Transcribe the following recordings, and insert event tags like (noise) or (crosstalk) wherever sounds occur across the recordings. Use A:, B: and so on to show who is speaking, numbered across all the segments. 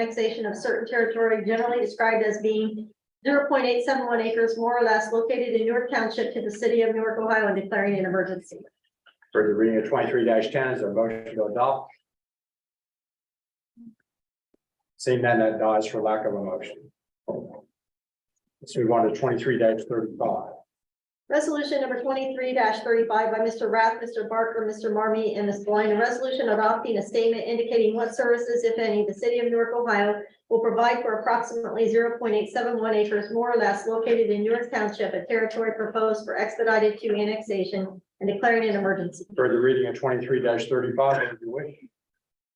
A: annexation of certain territory generally described as being zero point eight seven one acres more or less located in Newark Township to the city of Newark, Ohio, and declaring an emergency.
B: For the reading of twenty-three ten, is there a motion to adopt? Seeing none, that dies for lack of a motion. Let's move on to twenty-three thirty-five.
A: Resolution number twenty-three thirty-five by Mr. Rath, Mr. Barker, Mr. Marmy, and Ms. Blind, a resolution adopting a statement indicating what services, if any, the city of Newark, Ohio will provide for approximately zero point eight seven one acres more or less located in Newark Township, a territory proposed for expedited to annexation and declaring an emergency.
B: For the reading of twenty-three thirty-five, if you wish,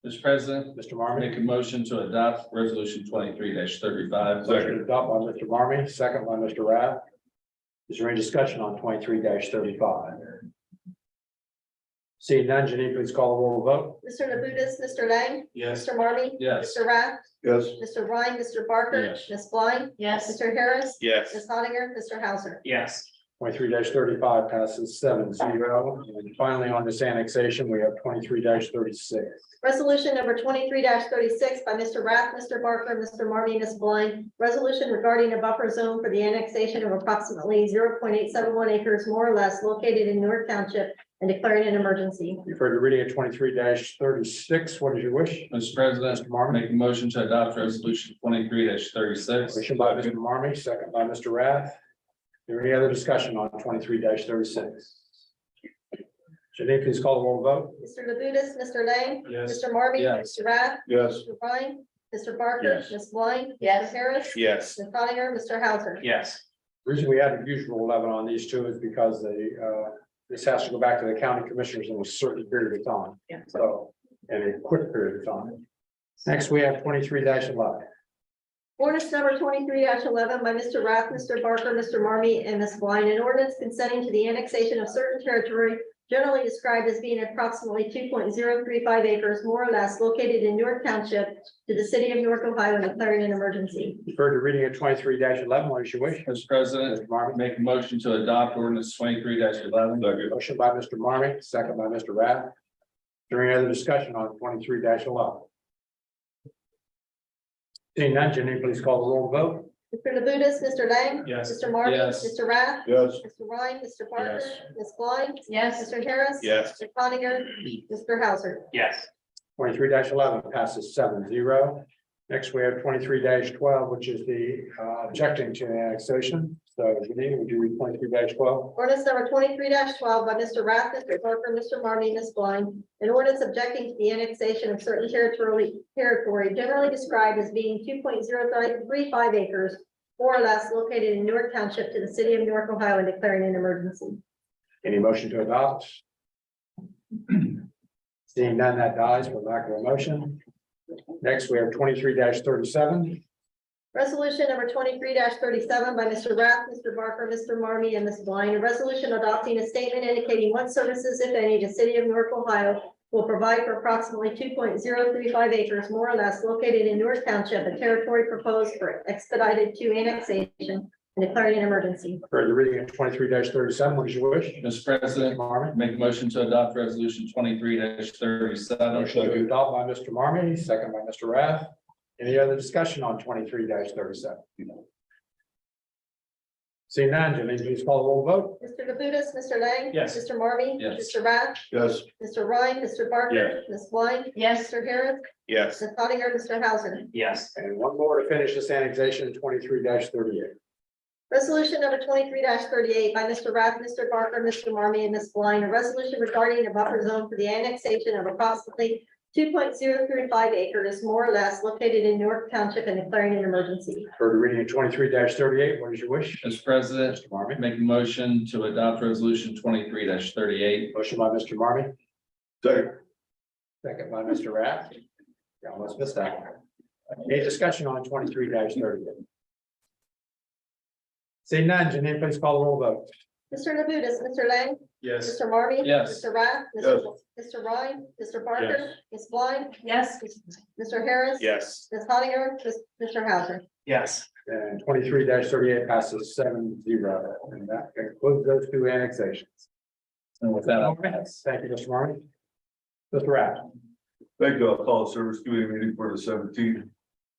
C: Mr. President,
B: Mr.
C: I
B: Marmy.
C: make a motion to adopt resolution twenty-three thirty-five.
B: Motion to adopt by Mr. Marmy, second by Mr. Rath. Is there any discussion on twenty-three thirty-five? Seeing none, Janine, please call the roll vote.
A: Mr. Labutus, Mr. Lang,
C: Yes.
A: Mr. Marmy.
C: Yes.
A: Mr. Rath,
D: Yes.
A: Mr. Ryan, Mr. Barker,
C: Yes.
A: Ms. Blind,
E: Yes.
A: Mr. Harris,
D: Yes.
A: Ms. Hattiger, Mr. Hauser.
D: Yes.
B: Twenty-three thirty-five passes seven zero. And finally, on this annexation, we have twenty-three thirty-six.
A: Resolution number twenty-three thirty-six by Mr. Rath, Mr. Barker, Mr. Marmy, Ms. Blind. Resolution regarding a buffer zone for the annexation of approximately zero point eight seven one acres more or less located in Newark Township and declaring an emergency.
B: You've heard the reading of twenty-three thirty-six. What is your wish?
C: Mr. President,
B: Mr.
C: I
B: Marmy,
C: make a motion to adopt resolution twenty-three thirty-six.
B: motion by Mr. Marmy, second by Mr. Rath. Is There any other discussion on twenty-three thirty-six? Janine, please call the roll vote.
A: Mr. Labutus, Mr. Lang,
C: Yes.
A: Mr. Marmy,
C: Yes.
A: Mr. Rath,
D: Yes.
A: Mr. Ryan, Mr. Barker,
C: Yes.
A: Ms. Blind.
E: Yes.
A: Mr. Harris.
D: Yes.
A: Ms. Hattiger, Mr. Hauser.
D: Yes.
B: Reason we had the usual eleven on these two is because they, uh, this has to go back to the county commissioners in a certain period of time.
E: Yeah.
B: So, in a quick period of time. Next, we have twenty-three eleven.
A: Ordinance number twenty-three eleven by Mr. Rath, Mr. Barker, Mr. Marmy, and Ms. Blind, an ordinance consenting to the annexation of certain territory generally described as being approximately two point zero three five acres more or less located in Newark Township to the city of Newark, Ohio, and declaring an emergency.
B: You've heard the reading of twenty-three eleven. What is your wish?
C: Mr. President,
B: Mr. Marmy?
C: I make a motion to adopt ordinance twenty-three eleven.
B: Motion by Mr. Marmy, second by Mr. Rath. During other discussion on twenty-three eleven. Seeing none, Jenny, please call the roll vote.
A: Mr. Labutus, Mr. Lang.
C: Yes.
A: Mr. Marmy.
C: Yes.
A: Mr. Rath.
D: Yes.
A: Mr. Ryan, Mr. Barker,
C: Yes.
A: Ms. Blind,
E: Yes.
A: Mr. Harris.
D: Yes.
A: Mr. Coninger, Mr. Hauser.
D: Yes.
B: Twenty-three eleven passes seven zero. Next, we have twenty-three twelve, which is the uh, objecting to the annexation. So Jenny, would you read twenty-three twelve?
A: Ordinance number twenty-three twelve by Mr. Rath, Mr. Parker, Mr. Marmy, Ms. Blind. An ordinance objecting to the annexation of certain territory, territory generally described as being two point zero three five acres or less located in Newark Township to the city of Newark, Ohio, and declaring an emergency.
B: Any motion to adopt? (clears throat) Seeing none, that dies for lack of a motion. Next, we have twenty-three thirty-seven.
A: Resolution number twenty-three thirty-seven by Mr. Rath, Mr. Barker, Mr. Marmy, and Ms. Blind. A resolution adopting a statement indicating what services, if any, the city of Newark, Ohio will provide for approximately two point zero three five acres more or less located in Newark Township, a territory proposed for expedited to annexation and declaring an emergency.
B: For the reading of twenty-three thirty-seven, what is your wish?
C: Mr. President, I
B: Marmy.
C: make a motion to adopt resolution twenty-three thirty-seven.
B: Motion to adopt by Mr. Marmy, second by Mr. Rath. Any other discussion on twenty-three thirty-seven? Seeing none, Janine, please call the roll vote.
A: Mr. Labutus, Mr. Lang.
B: Yes.
A: Mr. Marmy.
C: Yes.
A: Mr. Rath,
D: Yes.
A: Mr. Ryan, Mr. Barker, Ms. Blind,
E: Yes.
A: Mr. Harris,
D: Yes.
A: Ms. Hattiger, Mr. Hauser.
D: Yes.
B: And one more to finish this annexation, twenty-three thirty-eight.
A: Resolution number twenty-three thirty-eight by Mr. Rath, Mr. Barker, Mr. Marmy, and Ms. Blind, a resolution regarding a buffer zone for the annexation of approximately two point zero three five acres, more or less, located in Newark Township and declaring an emergency.
B: For the reading of twenty-three thirty-eight, what is your wish?
C: Mr. President,
B: Mr. Marmy.
C: I make a motion to adopt resolution twenty-three thirty-eight.
B: Motion by Mr. Marmy,
D: Second.
B: second by Mr. Rath. Yeah, almost missed that one. Any discussion on twenty-three thirty-eight? Seeing none, Janine, please call the roll vote.
A: Mr. Labutus, Mr. Lang,
C: Yes.
A: Mr. Marmy.
C: Yes.
A: Mr. Rath. Mr. Mr. Ryan, Mr. Barker, Ms. Blind,
E: Yes.
A: Mr. Harris.
D: Yes.
A: Ms. Hattiger, Ms. Mr. Hauser.
D: Yes.
B: And twenty-three thirty-eight passes seven zero, and that concludes those two annexations.
C: And with that, I'll
B: Thank you, Mr. Marmy. Mr. Rath,
F: Thank you. I'll call the service committee meeting for the seventeenth.